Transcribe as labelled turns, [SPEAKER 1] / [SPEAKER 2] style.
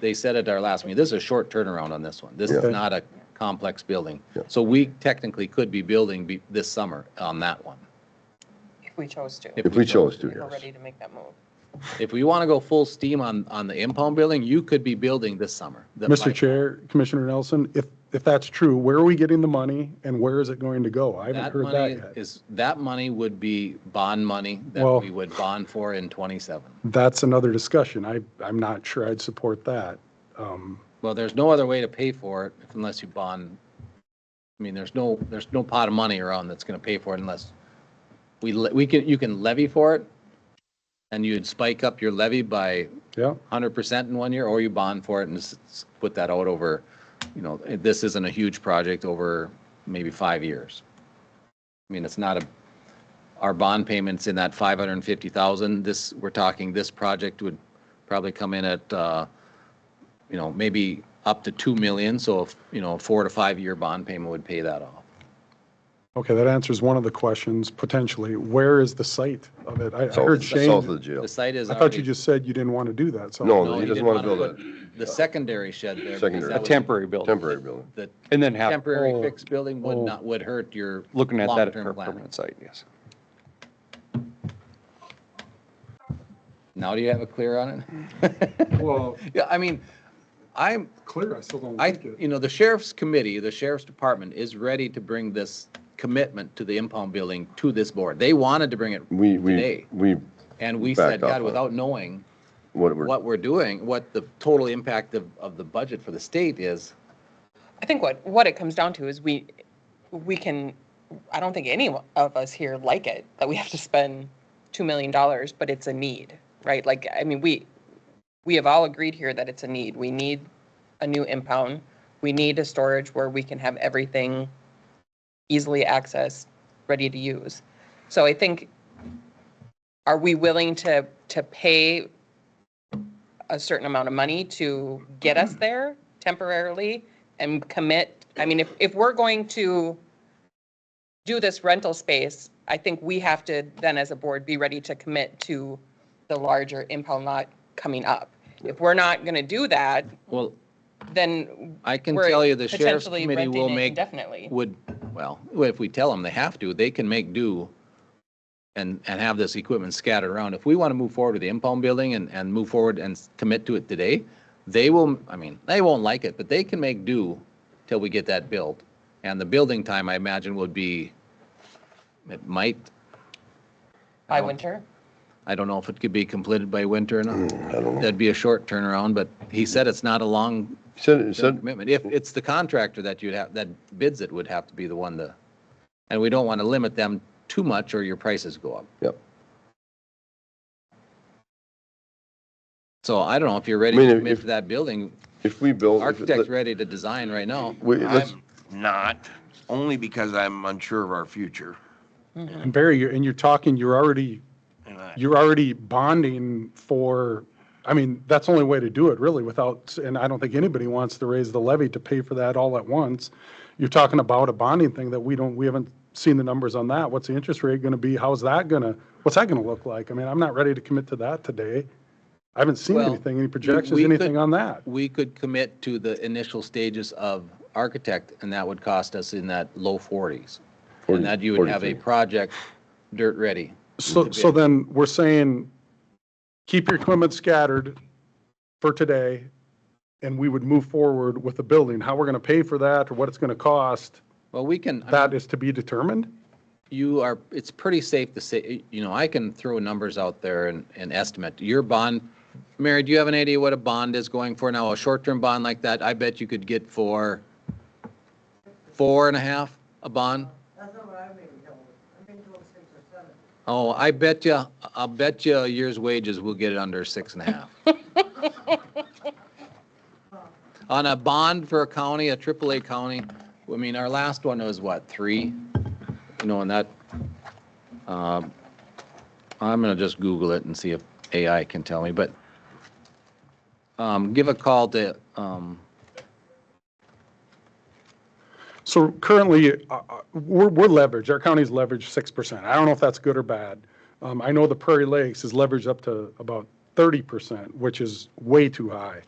[SPEAKER 1] they said at our last meeting, this is a short turnaround on this one. This is
[SPEAKER 2] Yeah.
[SPEAKER 1] not a complex building.
[SPEAKER 2] Yeah.
[SPEAKER 1] So we technically could be building be- this summer on that one.
[SPEAKER 3] If we chose to.
[SPEAKER 1] If
[SPEAKER 2] If we chose to,
[SPEAKER 3] If we're
[SPEAKER 2] yes.
[SPEAKER 3] ready to make that move.
[SPEAKER 1] If we want to go full steam on, on the impound building, you could be building this summer. the
[SPEAKER 4] Mr.
[SPEAKER 1] pipe.
[SPEAKER 4] Chair, Commissioner Nelson, if, if that's true, where are we getting the money and where is it going to go? I haven't
[SPEAKER 1] That
[SPEAKER 4] heard that
[SPEAKER 1] money
[SPEAKER 4] yet.
[SPEAKER 1] is, that money would be bond money that
[SPEAKER 4] Well-
[SPEAKER 1] we would bond for in twenty-seven.
[SPEAKER 4] That's another discussion. I, I'm not sure I'd support that. Um,
[SPEAKER 1] Well, there's no other way to pay for it unless you bond. I mean, there's no, there's no pot of money around that's gonna pay for it unless we, le- we can, you can levy for it. And you'd spike up your levy by
[SPEAKER 4] Yeah,
[SPEAKER 1] hundred percent in one year, or you bond for it and s- s- put that out over, you know, eh, this isn't a huge project over maybe five years. I mean, it's not a, our bond payments in that five hundred and fifty thousand, this, we're talking, this project would probably come in at, uh, you know, maybe up to two million, so if, you know, a four to five-year bond payment would pay that off.
[SPEAKER 4] okay, that answers one of the questions, potentially. Where is the site of it? I I
[SPEAKER 2] South
[SPEAKER 4] heard
[SPEAKER 2] south of the
[SPEAKER 4] Shane,
[SPEAKER 2] jail.
[SPEAKER 1] The site is
[SPEAKER 4] I thought
[SPEAKER 1] already.
[SPEAKER 4] you just said you didn't want to do that, so.
[SPEAKER 2] No,
[SPEAKER 1] No,
[SPEAKER 2] he
[SPEAKER 1] he
[SPEAKER 2] doesn't
[SPEAKER 1] didn't
[SPEAKER 2] want to
[SPEAKER 1] wanna
[SPEAKER 2] build
[SPEAKER 1] The secondary shed there. because
[SPEAKER 2] Secondary.
[SPEAKER 1] that
[SPEAKER 5] A
[SPEAKER 1] was
[SPEAKER 5] temporary
[SPEAKER 2] a
[SPEAKER 5] building.
[SPEAKER 2] temporary building.
[SPEAKER 1] The
[SPEAKER 5] And then have.
[SPEAKER 1] temporary
[SPEAKER 5] oh,
[SPEAKER 1] fixed building would
[SPEAKER 4] oh.
[SPEAKER 1] not, would hurt your.
[SPEAKER 5] Looking at that for
[SPEAKER 1] long-term
[SPEAKER 5] a
[SPEAKER 1] planning.
[SPEAKER 5] permanent site, yes.
[SPEAKER 1] Now do you have a clear on it?
[SPEAKER 4] Well,
[SPEAKER 1] Yeah, I mean, I'm,
[SPEAKER 4] clear, I still don't
[SPEAKER 1] I,
[SPEAKER 4] like it.
[SPEAKER 1] you know, the sheriff's committee, the sheriff's department is ready to bring this commitment to the impound building to this board. They wanted to bring it
[SPEAKER 2] We, we,
[SPEAKER 1] today.
[SPEAKER 2] we,
[SPEAKER 1] And we
[SPEAKER 2] backed
[SPEAKER 1] said,
[SPEAKER 2] off
[SPEAKER 1] God,
[SPEAKER 2] on it."
[SPEAKER 1] without knowing
[SPEAKER 2] what we're,
[SPEAKER 1] what we're doing, what the total impact of, of the budget for the state is,
[SPEAKER 3] I think what, what it comes down to is we, we can, I don't think any of us here like it, that we have to spend $2 million, but it's a need, right? Like, I mean, we, we have all agreed here that it's a need. We need a new impound. We need a storage where we can have everything easily accessed, ready to use. So I think, are we willing to, to pay a certain amount of money to get
[SPEAKER 1] Mm.
[SPEAKER 3] us there temporarily and commit? I mean, if, if we're going to do this rental space, I think we have to then as a board be ready to commit to the larger impound lot coming up. If we're not going to do that,
[SPEAKER 1] well,
[SPEAKER 3] then
[SPEAKER 1] I can
[SPEAKER 3] we're
[SPEAKER 1] tell you the sheriff's
[SPEAKER 3] potentially
[SPEAKER 1] committee
[SPEAKER 3] renting
[SPEAKER 1] will
[SPEAKER 3] it
[SPEAKER 1] make
[SPEAKER 3] indefinitely.
[SPEAKER 1] would, well, if we tell them they have to, they can make do and, and have this equipment scattered around. If we want to move forward with the impound building and, and move forward and s- commit to it today, they will, I mean, they won't like it, but they can make do till we get that built. And the building time, I imagine, would be, it might,
[SPEAKER 3] By winter?
[SPEAKER 1] I don't know if it could be completed by winter or not.
[SPEAKER 2] I don't know.
[SPEAKER 1] That'd be a short turnaround, but he said it's not a long
[SPEAKER 2] He Said, he said,
[SPEAKER 1] commitment. If it's the contractor that you'd have, that bids it would have to be the one to, and we don't want to limit them too much or your prices go up.
[SPEAKER 2] yep.
[SPEAKER 1] So I don't know if you're ready
[SPEAKER 2] I mean,
[SPEAKER 1] to
[SPEAKER 2] if-
[SPEAKER 1] commit
[SPEAKER 2] if-
[SPEAKER 1] to that building.
[SPEAKER 2] If we build. if it-
[SPEAKER 1] Architect's ready to design right now.
[SPEAKER 2] We, let's,
[SPEAKER 6] I'm not, only because I'm unsure of our future.
[SPEAKER 4] And Barry, you're- and you're talking, you're already
[SPEAKER 6] And I-
[SPEAKER 4] you're already bonding for, I mean, that's the only way to do it really without, and I don't think anybody wants to raise the levy to pay for that all at once. You're talking about a bonding thing that we don't, we haven't seen the numbers on that. What's the interest rate going to be? How's that going to, what's that going to look like? I mean, I'm not ready to commit to that today. I haven't seen
[SPEAKER 1] Well,
[SPEAKER 4] anything, any projections,
[SPEAKER 1] we could-
[SPEAKER 4] anything on that.
[SPEAKER 1] We could commit to the initial stages of architect and that would cost us in that low forties.
[SPEAKER 2] Forty-
[SPEAKER 1] And that you would have a
[SPEAKER 2] 43.
[SPEAKER 1] project dirt ready.
[SPEAKER 4] So, so then we're saying, keep your equipment scattered for today, and we would move forward with the building. How we're going to pay for that, or what it's going to cost,
[SPEAKER 1] Well, we can. I mean,
[SPEAKER 4] that is to be determined?
[SPEAKER 1] you are, it's pretty safe to say, you know, I can throw numbers out there and, and estimate. Your bond, Mary, do you have an idea what a bond is going for now? A short-term bond like that, I bet you could get for four and a half a bond?
[SPEAKER 7] That's not what I've been told. I've been told six or seven.
[SPEAKER 1] Oh, I bet you, I bet you a year's wages will get it under six and a half. On a bond for a county, a AAA county, I mean, our last one was what, three? You know, and that, um, I'm gonna just Google it and see if AI can tell me, but um, give a call to, um,
[SPEAKER 4] So currently, uh, uh, we're, we're leveraged, our county's leveraged 6%. I don't know if that's good or bad. Um, I know the Prairie Lakes is leveraged up to about 30%, which is way too high.